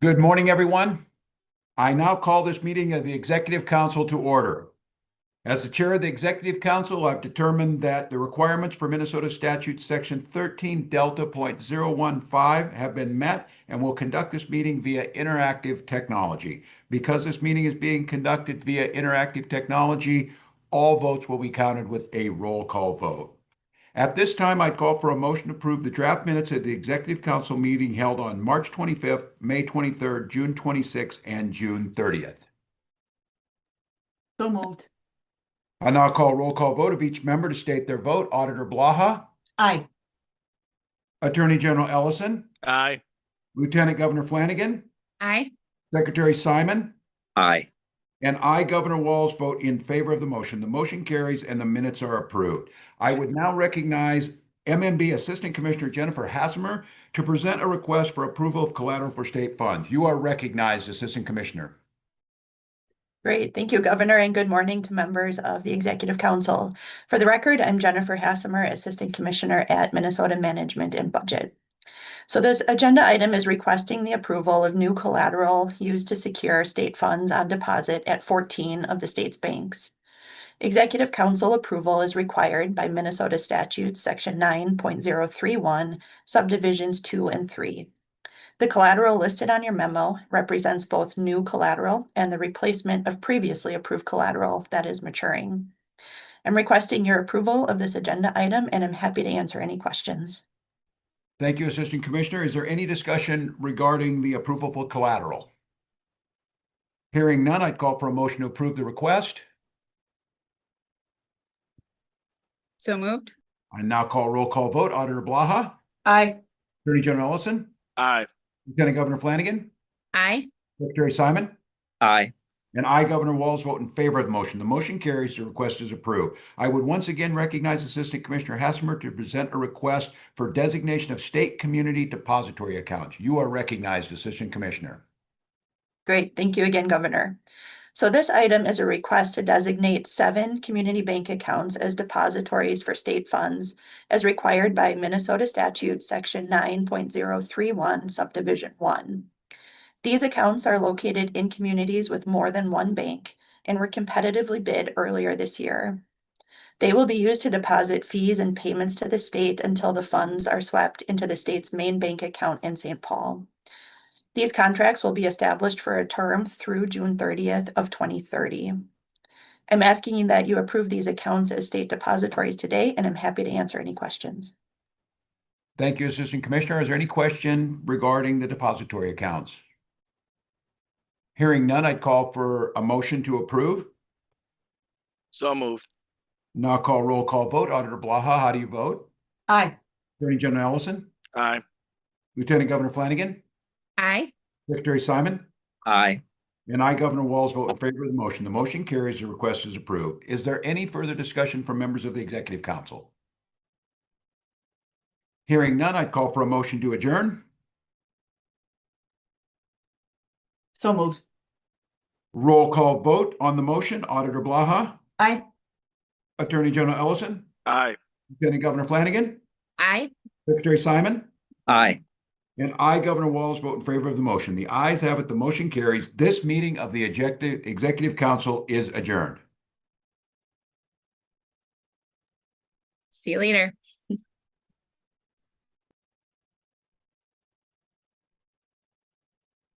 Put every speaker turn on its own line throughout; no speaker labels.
Good morning, everyone. I now call this meeting of the Executive Council to order. As the Chair of the Executive Council, I've determined that the requirements for Minnesota Statute Section 13 Delta .015 have been met and will conduct this meeting via interactive technology. Because this meeting is being conducted via interactive technology, all votes will be counted with a roll call vote. At this time, I'd call for a motion to approve the draft minutes of the Executive Council meeting held on March 25th, May 23rd, June 26th, and June 30th.
So moved.
I now call roll call vote of each member to state their vote. Auditor Blaha,
Aye.
Attorney General Ellison,
Aye.
Lieutenant Governor Flanagan,
Aye.
Secretary Simon,
Aye.
And I, Governor Walls, vote in favor of the motion. The motion carries and the minutes are approved. I would now recognize MMB Assistant Commissioner Jennifer Hassamer to present a request for approval of collateral for state funds. You are recognized, Assistant Commissioner.
Great, thank you, Governor, and good morning to members of the Executive Council. For the record, I'm Jennifer Hassamer, Assistant Commissioner at Minnesota Management and Budget. So this agenda item is requesting the approval of new collateral used to secure state funds on deposit at 14 of the state's banks. Executive Council approval is required by Minnesota statutes, Section 9.031, subdivisions 2 and 3. The collateral listed on your memo represents both new collateral and the replacement of previously approved collateral that is maturing. I'm requesting your approval of this agenda item and I'm happy to answer any questions.
Thank you, Assistant Commissioner. Is there any discussion regarding the approval for collateral? Hearing none, I'd call for a motion to approve the request.
So moved.
I now call roll call vote. Auditor Blaha,
Aye.
Attorney General Ellison,
Aye.
Lieutenant Governor Flanagan,
Aye.
Secretary Simon.
Aye.
And I, Governor Walls, vote in favor of the motion. The motion carries. The request is approved. I would once again recognize Assistant Commissioner Hasmer to present a request for designation of state community depository accounts. You are recognized, Assistant Commissioner.
Great, thank you again, Governor. So this item is a request to designate seven community bank accounts as depositories for state funds as required by Minnesota statute, section nine point zero three one subdivision one. These accounts are located in communities with more than one bank and were competitively bid earlier this year. They will be used to deposit fees and payments to the state until the funds are swept into the state's main bank account in St. Paul. These contracts will be established for a term through June thirtieth of twenty thirty. I'm asking you that you approve these accounts as state depositories today, and I'm happy to answer any questions.
Thank you, Assistant Commissioner. Is there any question regarding the depository accounts? Hearing none, I'd call for a motion to approve.
So moved.
Now I'll call roll call vote. Auditor Blaha, how do you vote?
Aye.
Attorney General Ellison,
Aye.
Lieutenant Governor Flanagan,
Aye.
Secretary Simon.
Aye.
And I, Governor Walls, vote in favor of the motion. The motion carries. The request is approved. Is there any further discussion from members of the Executive Council? Hearing none, I'd call for a motion to adjourn.
So moved.
Roll call vote on the motion. Auditor Blaha,
Aye.
Attorney General Ellison,
Aye.
Lieutenant Governor Flanagan,
Aye.
Secretary Simon.
Aye.
And I, Governor Walls, vote in favor of the motion. The ayes have it. The motion carries. This meeting of the Executive Executive Council is adjourned.
See you later.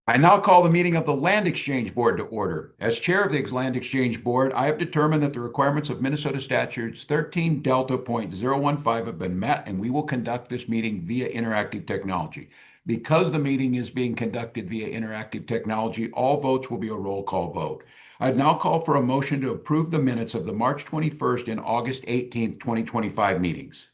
I now call the meeting of the Land Exchange Board to order. As Chair of the Land Exchange Board, I have determined that the requirements of Minnesota statutes 13 Delta Point .015 have been met, and we will conduct this meeting via interactive technology. Because the meeting is being conducted via interactive technology, all votes will be a roll call vote. I'd now call for a motion to approve the minutes of the March 21st and August 18th, 2025 meetings.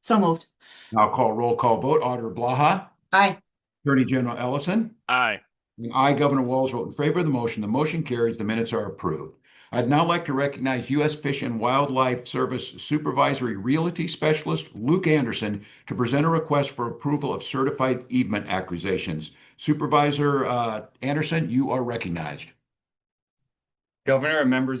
So moved.
Now call roll call vote. Auditor Blaha,
Aye.
Attorney General Ellison.
Aye.
And I, Governor Walls, vote in favor of the motion. The motion carries. The minutes are approved. I'd now like to recognize U.S. Fish and Wildlife Service Supervisory Realty Specialist Luke Anderson to present a request for approval of certified easement accusations. Supervisor uh, Anderson, you are recognized.
Governor and members of